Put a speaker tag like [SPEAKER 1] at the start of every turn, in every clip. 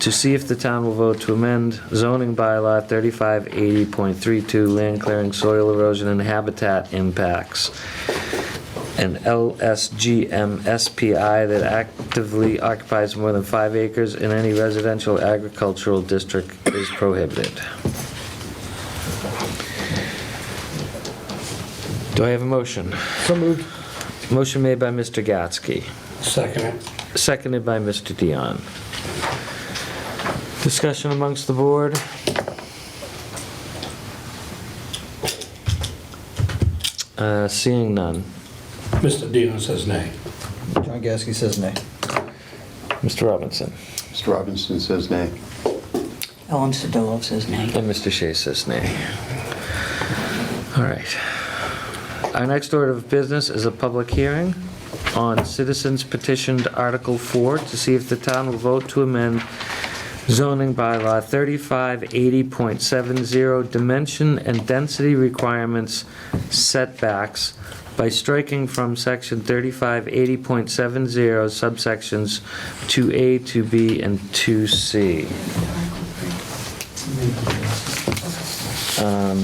[SPEAKER 1] to see if the town will vote to amend zoning bylaw 3580.32 land clearing, soil erosion, and habitat impacts, an LSGM SPI that actively occupies more than five acres in any residential agricultural district is prohibited. Do I have a motion?
[SPEAKER 2] So moved.
[SPEAKER 1] Motion made by Mr. Gatsky,
[SPEAKER 2] Second it.
[SPEAKER 1] seconded by Mr. Dion. Discussion amongst the board? Uh, Seeing none.
[SPEAKER 2] Mr. Dino says nay.
[SPEAKER 3] John Gasky says nay.
[SPEAKER 1] Mr. Robinson?
[SPEAKER 4] Mr. Robinson says nay.
[SPEAKER 5] Ellen Sedillo says nay.
[SPEAKER 1] And Mr. Shea says nay. All right. Our next order of business is a public hearing on citizens petitioned Article 4 to see if the town will vote to amend zoning bylaw 3580.70 dimension and density requirements setbacks by striking from section 3580.70 subsections 2A, 2B, and 2C. Um,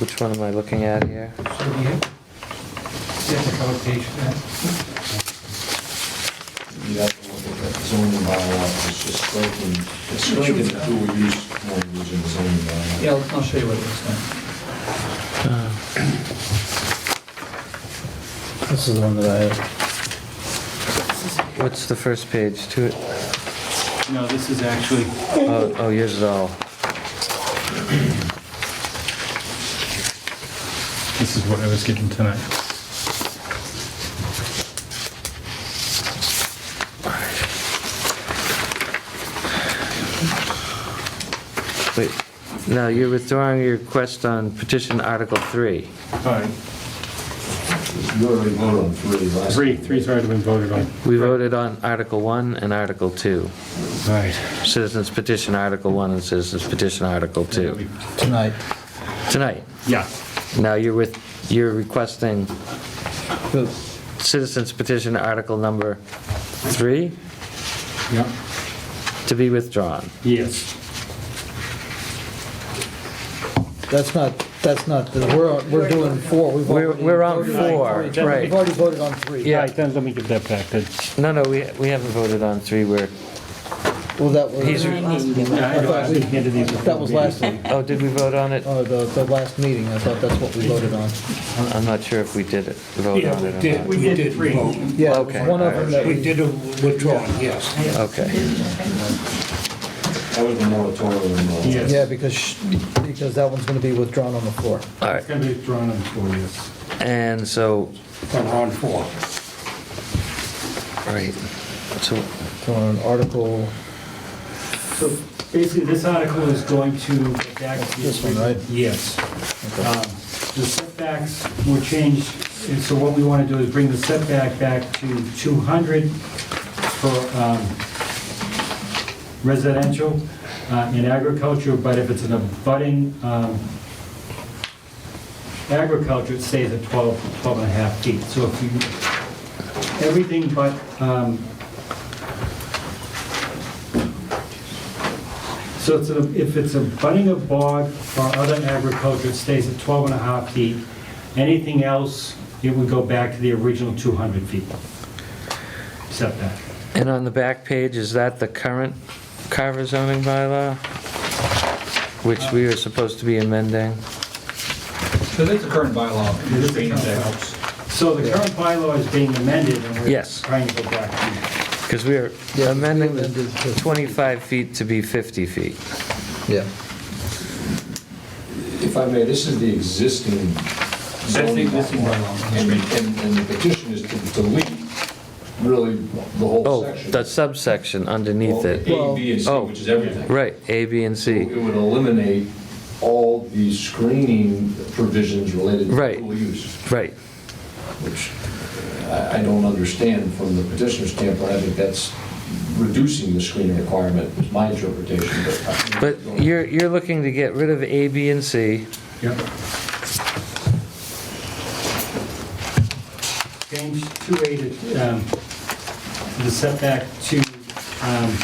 [SPEAKER 1] Which one am I looking at here?
[SPEAKER 6] So here, there's a cover page for that.
[SPEAKER 7] You have to look at that zoning bylaw, it's just striking, it's striking the dual use language in the zoning bylaw.
[SPEAKER 6] Yeah, I'll I'll show you what it looks like.
[SPEAKER 3] This is the one that I have.
[SPEAKER 1] What's the first page to it?
[SPEAKER 6] No, this is actually,
[SPEAKER 1] Oh, oh, yours is all.
[SPEAKER 6] this is what I was given tonight.
[SPEAKER 1] Wait, no, you're withdrawing your request on petition Article 3.
[SPEAKER 6] All right,
[SPEAKER 7] You already voted on three last.
[SPEAKER 6] three, three's already been voted on.
[SPEAKER 1] We voted on Article 1 and Article 2.
[SPEAKER 6] All right.
[SPEAKER 1] Citizens petition Article 1 and citizens petition Article 2.
[SPEAKER 3] Tonight,
[SPEAKER 1] Tonight,
[SPEAKER 6] Yeah,
[SPEAKER 1] now you're with, you're requesting
[SPEAKER 3] the
[SPEAKER 1] citizens petition Article number 3
[SPEAKER 6] yeah,
[SPEAKER 1] to be withdrawn.
[SPEAKER 6] yes.
[SPEAKER 3] That's not, that's not, the- we're, we're doing four. We've
[SPEAKER 1] We're-
[SPEAKER 3] already
[SPEAKER 1] we're on
[SPEAKER 3] voted
[SPEAKER 1] four,
[SPEAKER 3] three.
[SPEAKER 1] right.
[SPEAKER 3] We've already voted on three.
[SPEAKER 1] Yeah.
[SPEAKER 6] All right, then let me give that back then.
[SPEAKER 1] No, no, we, we haven't voted on 3, we're,
[SPEAKER 3] Well, that was,
[SPEAKER 1] He's-
[SPEAKER 5] Nine needs to be
[SPEAKER 6] Yeah, I
[SPEAKER 3] I
[SPEAKER 6] know,
[SPEAKER 3] thought
[SPEAKER 6] I've
[SPEAKER 3] we-
[SPEAKER 6] been handed these.
[SPEAKER 3] that was last week,
[SPEAKER 1] oh, did we vote on it?
[SPEAKER 3] or the, the last meeting. I thought that's what we voted on.
[SPEAKER 1] I'm I'm not sure if we did it, vote on it or
[SPEAKER 2] did.
[SPEAKER 1] not.
[SPEAKER 2] We did three.
[SPEAKER 3] Yeah, it was
[SPEAKER 1] Okay.
[SPEAKER 3] one of them that
[SPEAKER 2] We
[SPEAKER 3] we,
[SPEAKER 2] did a withdrawal, yes.
[SPEAKER 1] Okay,
[SPEAKER 7] That was the moratorium. uh,
[SPEAKER 6] Yes.
[SPEAKER 3] yeah, because, sh- because that one's gonna be withdrawn on the floor.
[SPEAKER 1] all right.
[SPEAKER 6] It's gonna be drawn on four, yes.
[SPEAKER 1] And so,
[SPEAKER 2] On round four.
[SPEAKER 1] right, so,
[SPEAKER 3] So on Article,
[SPEAKER 6] So basically, this article is going to back the...
[SPEAKER 3] This one, right?
[SPEAKER 6] Yes. Um, The setbacks were changed, and so what we want to do is bring the setback back to 200 for um, residential uh, and agriculture, but if it's an abutting um, agriculture, it stays at 12, 12 and a half feet. So if you, everything but um, So it's a- if it's a budding of bog or other agriculture, it stays at 12 and a half feet. Anything else, it would go back to the original 200 feet setback.
[SPEAKER 1] and on the back page, is that the current Carver zoning bylaw? Which we are supposed to be amending?
[SPEAKER 8] So that's the current bylaw.
[SPEAKER 6] It is the current bylaw. So the current bylaw is being amended, and we're
[SPEAKER 1] Yes.
[SPEAKER 6] trying to go back to...
[SPEAKER 1] Because we are amending the 25 feet to be 50 feet.
[SPEAKER 3] yeah,
[SPEAKER 7] If I may, this is the existing zoning
[SPEAKER 6] existing
[SPEAKER 7] bylaw. And, and- and the petition is to delete really the whole
[SPEAKER 1] Oh,
[SPEAKER 7] section.
[SPEAKER 1] the subsection underneath
[SPEAKER 7] Well,
[SPEAKER 1] it.
[SPEAKER 7] A, B, and C,
[SPEAKER 1] Oh.
[SPEAKER 7] which is everything.
[SPEAKER 1] Right, A, B, and C.
[SPEAKER 7] It would eliminate all the screening provisions related to
[SPEAKER 1] Right.
[SPEAKER 7] dual use.
[SPEAKER 1] Right,
[SPEAKER 7] which I I don't understand from the petitioner's standpoint. I think that's reducing the screening requirement, is my interpretation, but. uh, I-
[SPEAKER 1] but you're, you're looking to get rid of A, B, and C.
[SPEAKER 6] Yep. Change 2A to um, the setback to um,